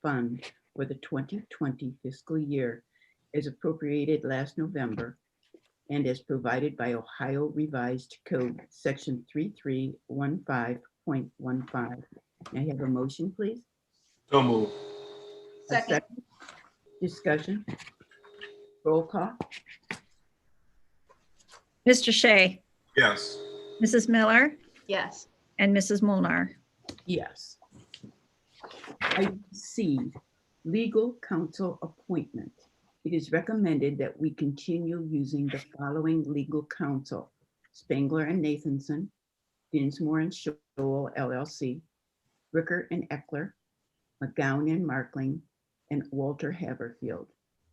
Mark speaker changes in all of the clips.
Speaker 1: Fund for the 2020 fiscal year as appropriated last November and as provided by Ohio Revised Code, Section 3315.15. May I have a motion, please?
Speaker 2: So move.
Speaker 1: A
Speaker 3: Second,
Speaker 1: Discussion? Roll call?
Speaker 4: Mr. Shea,
Speaker 2: Yes.
Speaker 4: Mrs. Miller,
Speaker 3: yes.
Speaker 4: and Mrs. Molnar.
Speaker 1: Yes. Item C, legal counsel appointment. It is recommended that we continue using the following legal counsel. Spangler and Nathanson, Dinsmore and Shoal LLC, Ricker and Eckler, McGowan and Markling, and Walter Haverfield.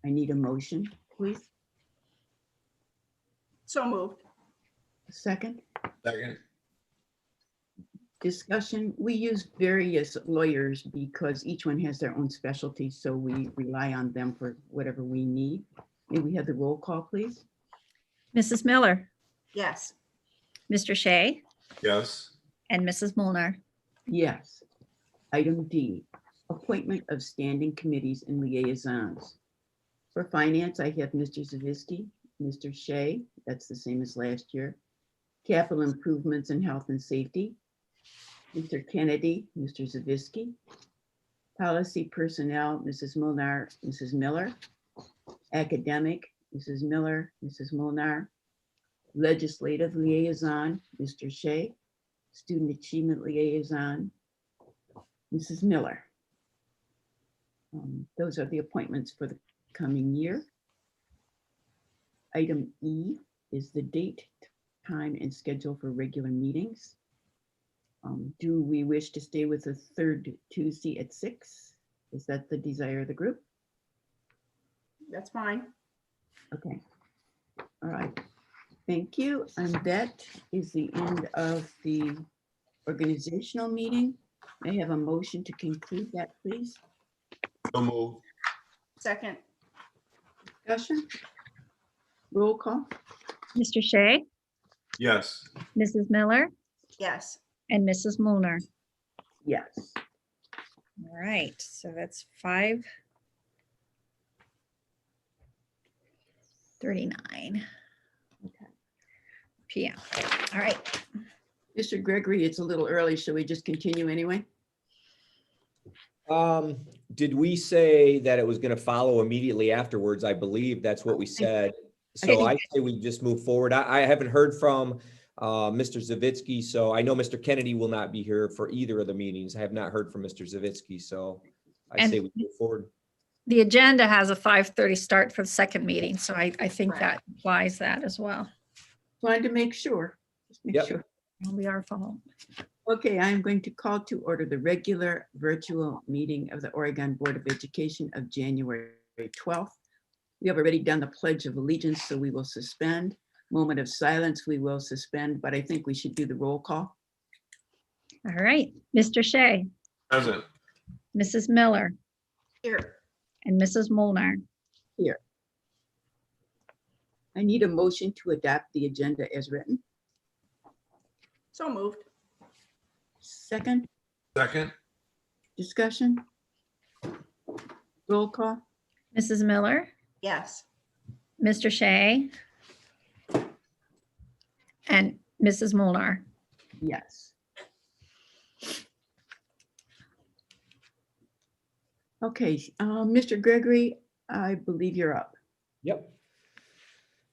Speaker 1: I need a motion, please.
Speaker 3: So moved.
Speaker 1: Second?
Speaker 2: Second.
Speaker 1: discussion, we use various lawyers because each one has their own specialty, so we rely on them for whatever we need. May we have the roll call, please?
Speaker 4: Mrs. Miller,
Speaker 3: Yes.
Speaker 4: Mr. Shea,
Speaker 2: Yes.
Speaker 4: and Mrs. Molnar.
Speaker 1: Yes. Item D, appointment of standing committees and liaisons. For finance, I have Mr. Zavisky, Mr. Shea, that's the same as last year. Capital improvements and health and safety. Mr. Kennedy, Mr. Zavisky. Policy personnel, Mrs. Molnar, Mrs. Miller. Academic, Mrs. Miller, Mrs. Molnar. Legislative liaison, Mr. Shea. Student Achievement Liaison, Mrs. Miller. Um, Those are the appointments for the coming year. Item E is the date, time, and schedule for regular meetings. Um, Do we wish to stay with the third Tuesday at six? Is that the desire of the group?
Speaker 3: That's fine.
Speaker 1: Okay. All right. Thank you. And that is the end of the organizational meeting. May I have a motion to conclude that, please?
Speaker 2: So move.
Speaker 3: Second,
Speaker 1: Discussion? Roll call?
Speaker 4: Mr. Shea,
Speaker 2: Yes.
Speaker 4: Mrs. Miller,
Speaker 3: yes.
Speaker 4: and Mrs. Molnar.
Speaker 1: Yes.
Speaker 4: All right, so that's five thirty-nine
Speaker 1: Okay.
Speaker 4: PM. All right,
Speaker 1: Mr. Gregory, it's a little early. Shall we just continue anyway?
Speaker 5: Um, did we say that it was gonna follow immediately afterwards? I believe that's what we said. So I say we just move forward. I, I haven't heard from, uh, Mr. Zavitsky, so I know Mr. Kennedy will not be here for either of the meetings. I have not heard from Mr. Zavitsky, so I
Speaker 4: And-
Speaker 5: say we move forward.
Speaker 4: the agenda has a five thirty start for the second meeting, so I, I think
Speaker 3: Right.
Speaker 4: that implies that as well.
Speaker 1: Wanted to make sure. Just make
Speaker 5: Yep.
Speaker 1: sure.
Speaker 4: We are following.
Speaker 1: Okay, I am going to call to order the regular virtual meeting of the Oregon Board of Education of January 12th. We have already done the Pledge of Allegiance, so we will suspend. Moment of silence, we will suspend, but I think we should do the roll call.
Speaker 4: All right, Mr. Shea,
Speaker 2: Present.
Speaker 4: Mrs. Miller,
Speaker 3: Here,
Speaker 4: and Mrs. Molnar.
Speaker 1: I need a motion to adopt the agenda as written.
Speaker 3: so moved.
Speaker 1: Second,
Speaker 2: Second.
Speaker 1: discussion? Roll call?
Speaker 4: Mrs. Miller,
Speaker 3: Yes.
Speaker 4: Mr. Shea, and Mrs. Molnar.
Speaker 1: Yes. Okay, uh, Mr. Gregory, I believe you're up.
Speaker 5: Yep.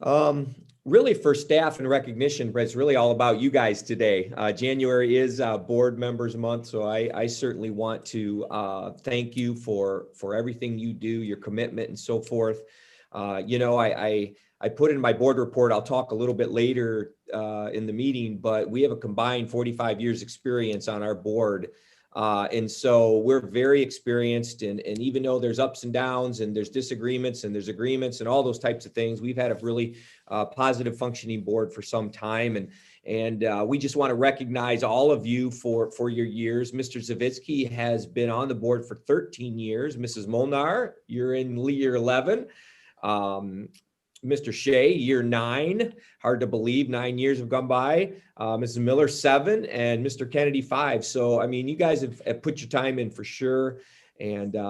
Speaker 5: Um, really for staff and recognition, but it's really all about you guys today. Uh, January is, uh, Board Members Month, so I, I certainly want to, uh, thank you for, for everything you do, your commitment and so forth. Uh, you know, I, I, I put in my board report, I'll talk a little bit later, uh, in the meeting, but we have a combined forty-five years' experience on our board. Uh, and so we're very experienced and, and even though there's ups and downs and there's disagreements and there's agreements and all those types of things, we've had a really uh, positive functioning board for some time. And, and uh, we just want to recognize all of you for, for your years. Mr. Zavitsky has been on the board for 13 years. Mrs. Molnar, you're in year 11. Um, Mr. Shea, year nine, hard to believe, nine years have gone by uh, Mrs. Miller seven and Mr. Kennedy five. So I mean, you guys have, have put your time in for sure, and uh,